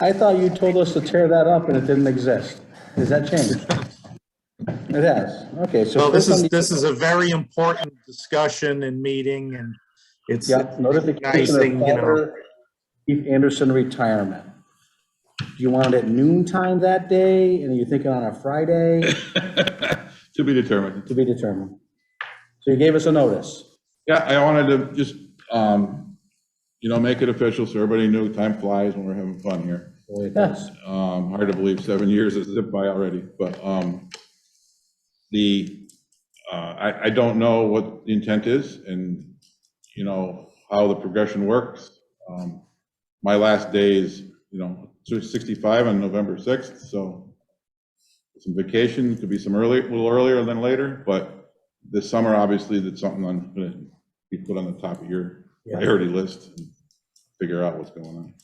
I thought you told us to tear that up and it didn't exist. Has that changed? It has, okay, so. Well, this first is, on the- this is a very important discussion and meeting and it's Yep, notification recognizing, of you know- father Keith Anderson retirement. Do you want it at noon time that day, and are you thinking on a Friday, To be determined. to be determined? So you gave us a notice. Yeah, I wanted to just, um, you know, make it official so everybody knew time flies when we're having fun here. Yes, Um, hard to believe seven years has zipped by already, but, um, the, uh, I, I don't know what the intent is and, you know, how the progression works. Um, my last day is, you know, 65 on November 6th, so some vacation, could be some early, a little earlier than later, but this summer, obviously, that's something I'm gonna be put on the top of your Yeah. priority list and figure out what's going on.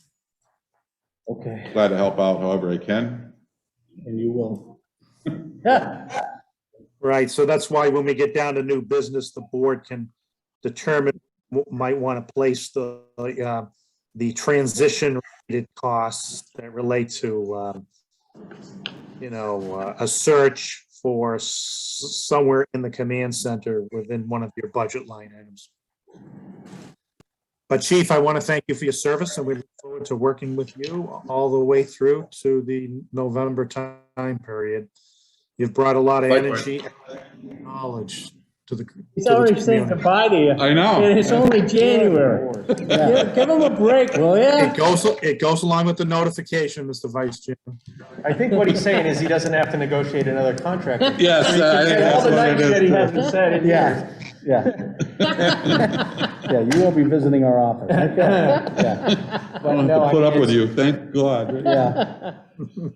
okay, Glad to help out however I can. and you will. Yeah, Right, so that's why when we get down to new business, the board can determine what might want to place the, uh, the transition-related costs that relate to, um, you know, uh, a search for s- somewhere in the command center within one of your budget line items. But Chief, I want to thank you for your service, and we look forward to working with you all the way through to the November time period. You've brought a lot of Likewise. energy and knowledge to the. He's to the already saying community. goodbye to you. I know. And it's only January. Oh. yeah. Give give him a break, will ya? It goes, it goes along with the notification, Mr. Vice Chair. I think what he's saying is he doesn't have to negotiate another contract. Yes, I think All that's the nights that he what it hasn't said in years. yeah. Yeah, you won't be visiting our office, okay, yeah, is. I don't have to put up with you, thank God. yeah.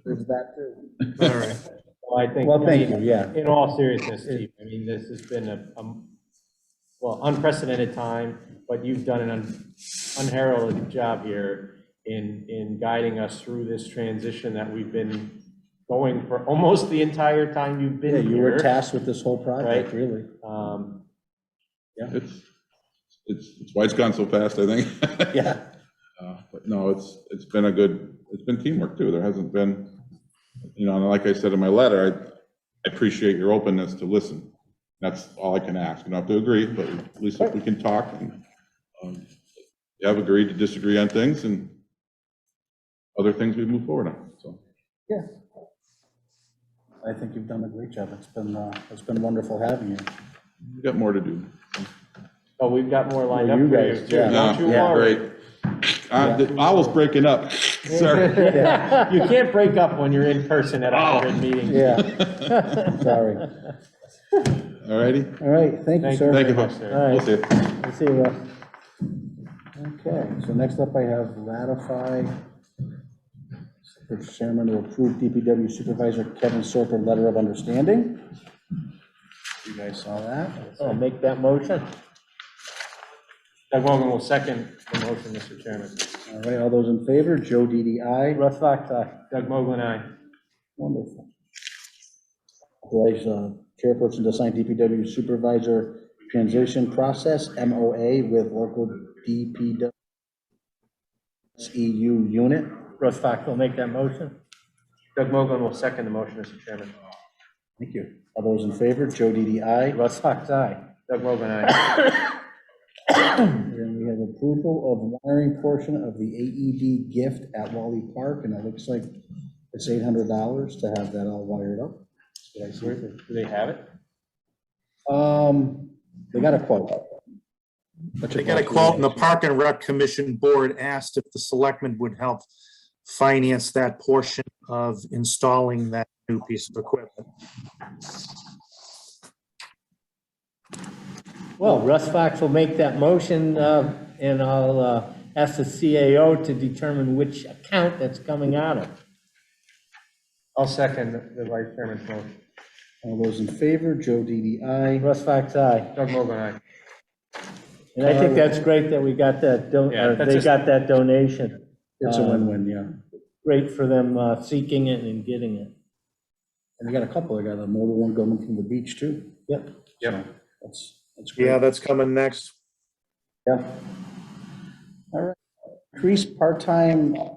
There's that too. All right. Well, I think. Well, thank you, yeah. In all seriousness, Chief, I mean, this has been a, um, well, unprecedented time, but you've done an un- unheralded job here in, in guiding us through this transition that we've been going for almost the entire time you've Yeah, been you were here. tasked with this whole project, Right. really. Um, It's, it's, it's why it's gone so fast, I think. Yeah, Uh, But no, it's, it's been a good, it's been teamwork too, there hasn't been, you know, and like I said in my letter, I I appreciate your openness to listen. That's all I can ask, you don't have to agree, but at least if we can talk and, um, you have agreed to disagree on things and other things we move forward on, so. yeah. I think you've done a great job. It's been, uh, it's been wonderful having you. We've got more to do. oh, we've got more lined Well, up you for you guys, too. yeah. Don't you Yeah, worry. great. Uh, the owl's breaking up, sorry. You can't break up when you're in person at a hybrid meeting. Yeah. Sorry. All righty, All right, thank you, Thank you sir. thank you, very much, folks. sir. All right, we'll see you. I'll see you, Russ. Okay, so next up I have ratify the chairman to approve DPW Supervisor Kevin Sorper letter of understanding. You guys saw that? I'll make that motion. Doug Mogul will second the motion, Mr. Chairman. All right, all those in favor, Joe DDI. Russ Fox, aye. Doug Mogul and I. Wonderful. Authorize uh, chairperson to sign DPW supervisor transition process, MOA, with local DPW EU E unit. Russ Fox will make that motion. Doug Mogul will second the motion, Mr. Chairman. Thank you. All those in favor, Joe DDI. Russ Fox, aye. Doug Mogul and I. And we have approval of wiring portion of the AED gift at Wally Park, and it looks like it's eight hundred dollars to have that all wired up. Did I see it? Do they have it? Um, they got a quote. They got a quote, and the Park and Rec Commission Board asked if the selectmen would help finance that portion of installing that new piece of equipment. Well, Russ Fox will make that motion, uh, and I'll uh, ask the CAO to determine which account that's coming out of. I'll second the vice chairman's motion. All those in favor, Joe DDI. Russ Fox, aye. Doug Mogul and I. And I think that's great that we got that, don- Uh, Yeah, or that's they just- got that donation. It's a win-win, yeah. Great for them uh, seeking it and getting it. And they got a couple, they got a mobile one going from the beach too. Yep. Yep. That's, that's great. Yeah, that's coming next. Yeah. All right. Increase part-time